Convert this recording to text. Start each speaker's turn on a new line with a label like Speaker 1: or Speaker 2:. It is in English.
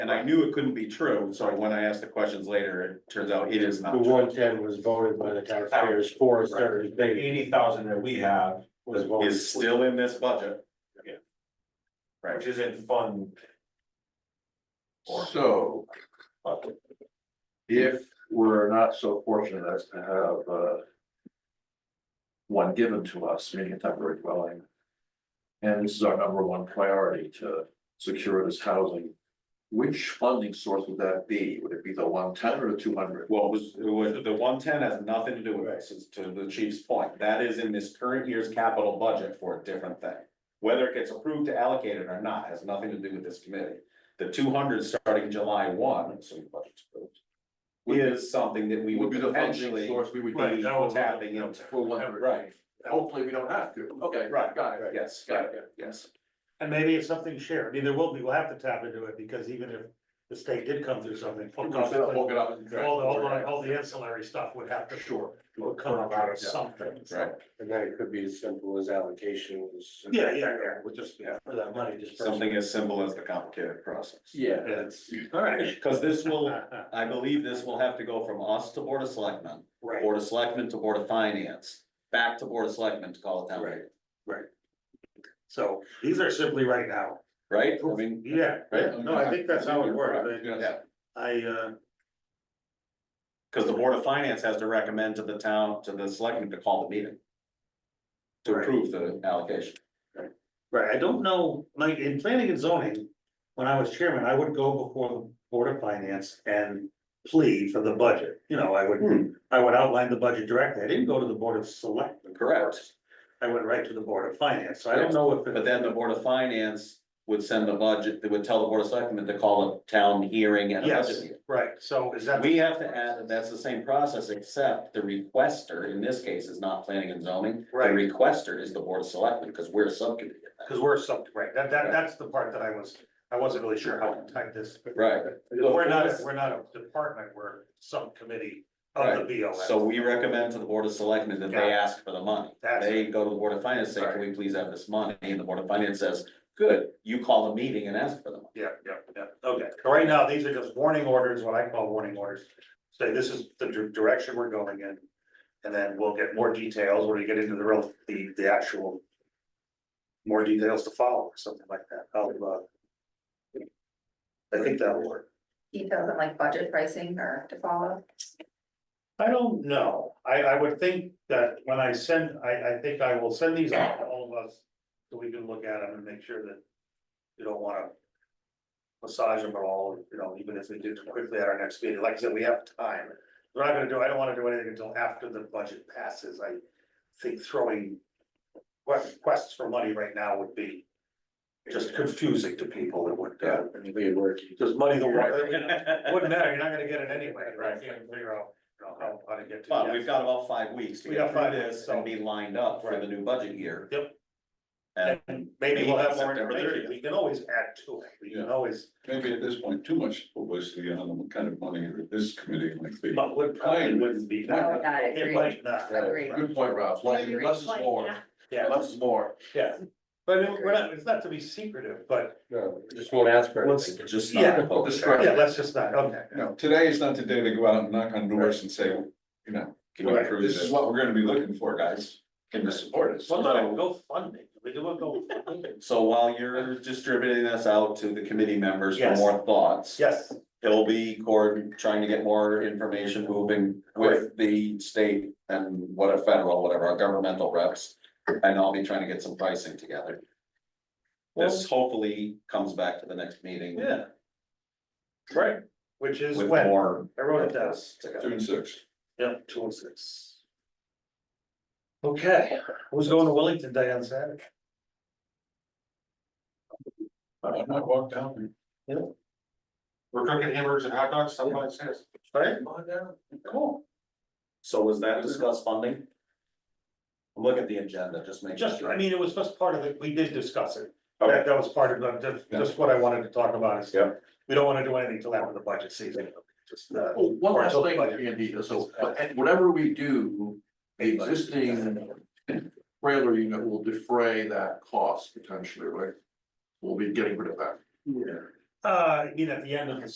Speaker 1: I knew it couldn't be true, so when I asked the questions later, it turns out it is not
Speaker 2: The
Speaker 1: true.
Speaker 2: one ten was voted by the taxpayers for a certain thing.
Speaker 3: Eighty thousand that we have was voted,
Speaker 1: Is still in this budget.
Speaker 3: Yeah.
Speaker 1: Right,
Speaker 3: which is in fund. Or,
Speaker 4: So if we're not so fortunate as to have uh. One given to us, meaning a temporary dwelling. And this is our number one priority to secure this housing. Which funding source would that be? Would it be the one ten or the two hundred?
Speaker 1: well, it was, it was, the one ten has nothing to do with this, it's to the chief's point, that is in this current year's capital budget for a different thing. Whether it gets approved to allocate it or not has nothing to do with this committee. The two hundred starting July one, assuming the budget's approved. Is something that we would
Speaker 4: Would be the
Speaker 1: potentially
Speaker 4: funding source we would
Speaker 1: be
Speaker 4: be.
Speaker 1: tapping into.
Speaker 4: For one hundred, right?
Speaker 1: Right,
Speaker 4: Hopefully, we don't have to. Okay,
Speaker 1: Right.
Speaker 4: got it.
Speaker 1: yes,
Speaker 4: Got
Speaker 1: got
Speaker 4: it,
Speaker 1: it, yes.
Speaker 5: And maybe it's something shared, I mean, there will be, we'll have to tap into it, because even if the state did come through something.
Speaker 4: We're
Speaker 5: All the,
Speaker 4: gonna set up, Hook it up.
Speaker 5: all the, all the ancillary stuff would have to
Speaker 4: Sure.
Speaker 5: would come out of something.
Speaker 1: Right.
Speaker 2: And then it could be as simple as allocations.
Speaker 5: Yeah, yeah, yeah.
Speaker 2: We'll just, yeah, for that money, just.
Speaker 1: Something as simple as the complicated process.
Speaker 4: Yeah.
Speaker 5: It's, all right.
Speaker 1: Cause this will, I believe this will have to go from us to Board of Selectmen,
Speaker 2: Right.
Speaker 1: Board of Selectmen to Board of Finance, back to Board of Selectmen to call it down,
Speaker 2: Right. So,
Speaker 5: These are simply right now.
Speaker 1: right? I mean,
Speaker 5: Yeah,
Speaker 1: Right.
Speaker 5: no, I think that's how it works,
Speaker 4: Yeah.
Speaker 5: I, uh,
Speaker 1: cause the Board of Finance has to recommend to the town, to the selectmen to call the meeting. To
Speaker 5: Right.
Speaker 1: approve the allocation.
Speaker 5: right, I don't know, like, in planning and zoning, when I was chairman, I would go before the Board of Finance and plead for the budget, you know, I
Speaker 1: Hmm.
Speaker 5: would, I would outline the budget directly, I didn't go to the Board of Selectmen.
Speaker 1: Correct.
Speaker 5: I went right to the Board of Finance, so I don't know if. it-
Speaker 1: But then the Board of Finance would send the budget, they would tell the Board of Selectmen to call a town hearing and a budget
Speaker 5: Yes,
Speaker 1: meeting.
Speaker 5: right, so is that?
Speaker 1: We have to add, that that's the same process, except the requester in this case is not planning and zoning. The
Speaker 5: Right.
Speaker 1: requester is the board of selectmen, because we're a subcommittee. of that.
Speaker 5: Cause we're sub, right, that, that, that's the part that I was, I wasn't really sure how to type this. but-
Speaker 1: Right.
Speaker 5: We're not, a- we're not a department, we're subcommittee of the BOS.
Speaker 1: So we recommend to the board of selectmen that
Speaker 5: Got
Speaker 1: they
Speaker 5: it.
Speaker 1: ask for the money.
Speaker 5: That's
Speaker 1: They go to the board of finance, say, can we please have this money? And the board of finance says, good, you call a meeting and ask for the money.
Speaker 5: Yeah, yeah, yeah, okay, so right now, these are just warning orders, what I call warning orders, say this is the dir- direction we're going in. And then we'll get more details when we get into the real, the, the actual. More details to follow, or something like that, I'll, uh. I think that'll work.
Speaker 6: details on like budget pricing or to follow.
Speaker 5: I don't know, I, I would think that when I send, I, I think I will send these out to all of us, so we can look at them and make sure that. You don't wanna. Massage them at all, you know, even if we do it quickly at our next meeting, like I said, we have time. We're not gonna do, I don't wanna do anything until after the budget passes, I think throwing. Requests for money right now would be. Just confusing to people, it would, uh,
Speaker 2: anybody working.
Speaker 5: just money the uh, water, wouldn't matter, you're not gonna get it anyway, right? You can't figure out, you know, how, how to get to. the
Speaker 1: But we've got about five weeks to
Speaker 5: We
Speaker 1: get
Speaker 5: got five
Speaker 1: through
Speaker 5: weeks,
Speaker 1: this
Speaker 5: so-
Speaker 1: and be lined up for
Speaker 5: Right.
Speaker 1: the new budget year.
Speaker 5: Yep.
Speaker 1: And
Speaker 5: And maybe we'll have more
Speaker 1: September
Speaker 5: information,
Speaker 1: 30th.
Speaker 5: we can always add to it, we can always,
Speaker 7: maybe at this point, too much publicity on the kind of money that this committee might be.
Speaker 5: but would probably wouldn't be.
Speaker 4: Well,
Speaker 5: that.
Speaker 6: I
Speaker 5: It might not,
Speaker 6: Agree.
Speaker 4: Good point, Ralph. Less less is more.
Speaker 5: yeah,
Speaker 4: Less is more.
Speaker 5: yeah, but we're not, it's not to be secretive, but
Speaker 2: No, just won't ask for
Speaker 5: Let's-
Speaker 2: anything.
Speaker 1: Just
Speaker 5: Yeah.
Speaker 1: not public.
Speaker 4: Describe.
Speaker 5: yeah, let's just not, okay.
Speaker 7: You know, today is not the day to go out and knock on doors and say, you know,
Speaker 1: Can you
Speaker 5: Right.
Speaker 1: approve
Speaker 7: this is
Speaker 1: this?
Speaker 7: what we're gonna be looking for, guys. Can you support us?
Speaker 5: Sometimes go funding, we do a go funding.
Speaker 1: So while you're distributing this out to the committee members for
Speaker 5: Yes.
Speaker 1: more thoughts.
Speaker 5: Yes,
Speaker 1: He'll be cord, trying to get more information moving with the state and what a federal, whatever, our governmental reps. And I'll be trying to get some pricing together. This hopefully comes back to the next meeting.
Speaker 5: yeah. Right, which is
Speaker 1: With
Speaker 5: when,
Speaker 1: more.
Speaker 5: I wrote it down,
Speaker 1: this together.
Speaker 7: June sixth.
Speaker 5: yeah, two oh six. Okay, who's going to Wellington Day on Saturday?
Speaker 7: I might walk down.
Speaker 3: we're cooking hamburgers and hot dogs, somebody says.
Speaker 5: Right?
Speaker 3: Cool.
Speaker 1: So was that discussed funding? Look at the agenda, just make.
Speaker 5: Just,
Speaker 1: sure.
Speaker 5: I mean, it was just part of it, we did discuss it.
Speaker 1: Okay.
Speaker 5: That, that was part of the, just, just what I wanted to talk about is.
Speaker 1: Yeah.
Speaker 5: We don't wanna do anything till after the budget season, just, uh.
Speaker 4: Well, Oh, one
Speaker 5: or
Speaker 4: last
Speaker 5: until the
Speaker 4: thing,
Speaker 5: budget.
Speaker 4: Andy, so whatever we do, the existing trailer unit will defray that cost potentially, right? We'll be getting rid of that.
Speaker 2: Yeah.
Speaker 5: Uh, I mean, at the end of the